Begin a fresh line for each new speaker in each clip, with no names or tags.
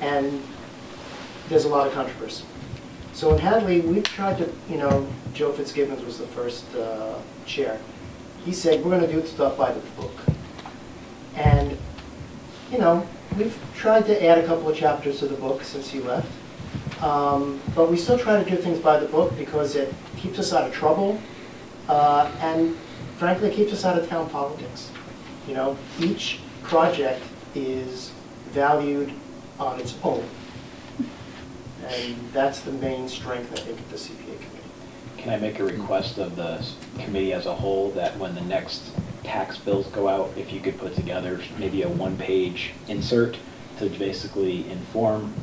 and there's a lot of controversy. So in Hadley, we tried to, you know, Joe Fitzgibbons was the first uh, chair. He said, we're gonna do stuff by the book. And, you know, we've tried to add a couple of chapters to the book since he left. Um, But we still try to do things by the book because it keeps us out of trouble uh, and frankly, it keeps us out of town politics. You know, each project is valued on its own. And that's the main strength, I think, of the CPA committee.
Can I make a request of the s- committee as a whole that when the next tax bills go out, if you could put together maybe a one-page insert to basically inform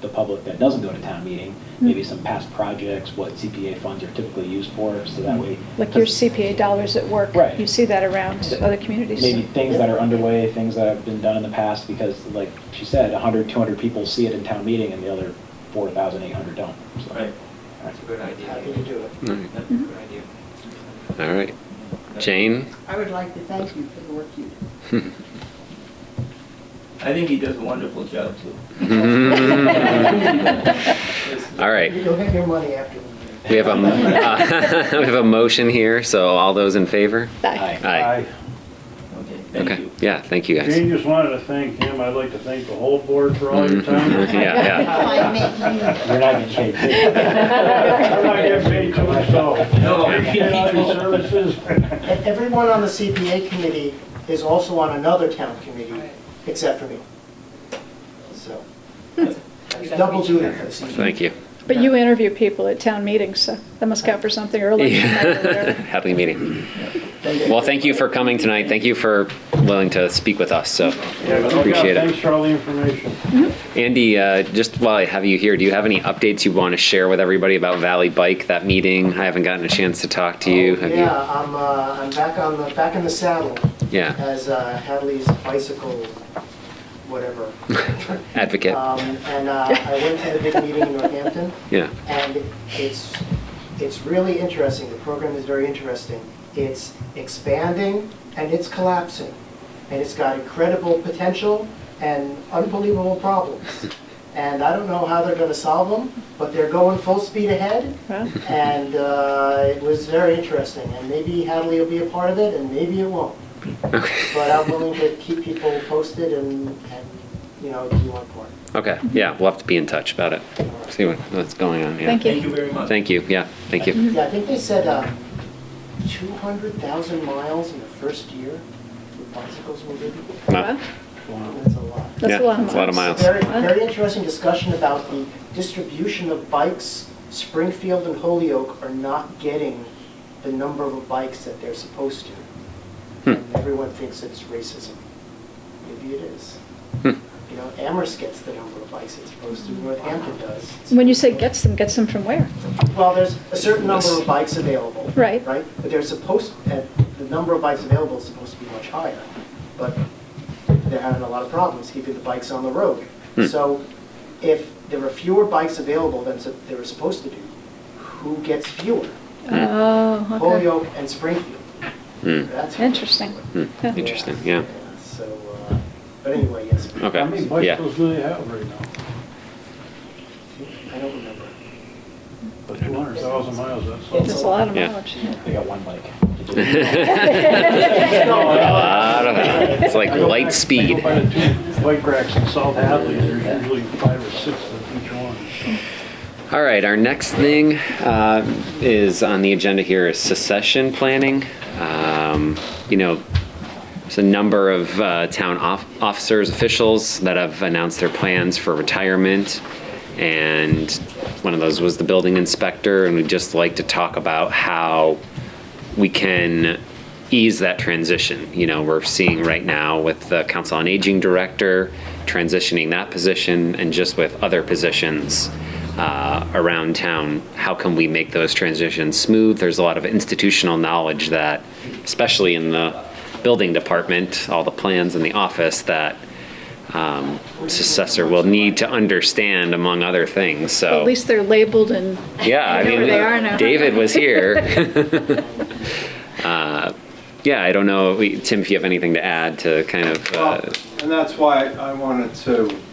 the public that doesn't go to town meeting,
Hmm.
maybe some past projects, what CPA funds are typically used for, so that way.
Hmm. Like your CPA dollars at work.
Right.
You see that around other communities.
Maybe things that are underway, things that have been done in the past, because like she said, 100, 200 people see it in town meeting and the other 4,800 don't. So-
Right.
All right.
That's a good idea.
Happy to do it.
All right.
That's a good idea.
All right. Jane?
I would like to thank you for the work you do.
I think he does a wonderful job too.
All right.
You'll get your money after the meeting.
We have a, we have a motion here, so all those in favor?
Aye.
Aye.
Okay, thank
Okay,
you.
yeah, thank you guys.
Jane just wanted to thank him. I'd like to thank the whole board for all your time.
Mhm. Yeah,
I make you-
You're not getting paid.
I'm not getting paid too much, so.
No.
Appreciate all your services.
And E-, Everyone on the CPA committee is also on another town committee, except for me. So, double duty for the
yeah,
CPA.
thank you.
But you interview people at town meetings, so that must count for something early.
Happy meeting. Well, thank you for coming tonight. Thank you for willing to speak with us, so
Yeah, but no doubt.
appreciate it.
Thanks for all the information.
Andy, uh, just while I have you here, do you have any updates you want to share with everybody about Valley Bike, that meeting? I haven't gotten a chance to talk to you.
Oh,
Have you?
Yeah, I'm, uh, I'm back on the, back in the saddle
Yeah,
as uh, Hadley's bicycle, whatever.
advocate.
Um, And uh, I went to the big meeting in Northampton,
Yeah,
and it's, it's really interesting, the program is very interesting. It's expanding and it's collapsing, and it's got incredible potential and unbelievable problems. And I don't know how they're gonna solve them, but they're going full speed ahead,
Well,
and uh, it was very interesting, and maybe Hadley will be a part of it, and maybe it won't. But I'm willing to keep people posted and, and, you know, do one part.
okay, yeah, we'll have to be in touch about it. See what, what's going on, yeah.
Thank
Thank you very much.
Thank you, yeah, thank you.
Yeah, I think they said uh, 200,000 miles in the first year with bicycles were ridden.
Wow.
That's a lot.
That's
Yeah,
a lot of
it's a lot of
miles.
miles.
Very,
Wow.
very interesting discussion about the distribution of bikes. Springfield and Holyoke are not getting the number of bikes that they're supposed to. And everyone thinks it's racism. Maybe it is.
Hmm.
You know, Amherst gets the number of bikes it's supposed to, Northampton does.
When you say gets them, gets them from where?
Well, there's a certain number of bikes available.
Right.
Right? But they're supposed, and the number of bikes available is supposed to be much higher. But they're having a lot of problems keeping the bikes on the road.
Hmm.
So if there are fewer bikes available than s- there were supposed to do, who gets fewer?
Oh,
Holyoke and Springfield.
Hmm.
That's.
okay. Interesting.
Hmm,
Yeah.
Interesting, yeah.
So, uh, but anyway, yes.
Okay.
How many
Yeah.
bicycles do they have right now?
I don't remember.
But 200,000 miles, that's.
It's
There's a lot of
Yeah.
mileage.
They got one mic.
I don't know. It's like
I go
light
back- I
speed.
go by the two bike racks in South Hadley, there's usually five or six of each one.
All right, our next thing uh, is on the agenda here is secession planning. Um, You know, there's a number of uh, town off- officers, officials that have announced their plans for retirement. And one of those was the building inspector, and we'd just like to talk about how we can ease that transition. You know, we're seeing right now with the Council on Aging Director transitioning that position and just with other positions uh, around town, how can we make those transitions smooth? There's a lot of institutional knowledge that, especially in the building department, all the plans in the office that um, successor will need to understand among other things, so.
At least they're labeled and
Yeah, I
I know
mean,
where they are now.
David was here. Uh, Yeah, I don't know, we- Tim, if you have anything to add to kind of, uh,
Well, And that's why I wanted to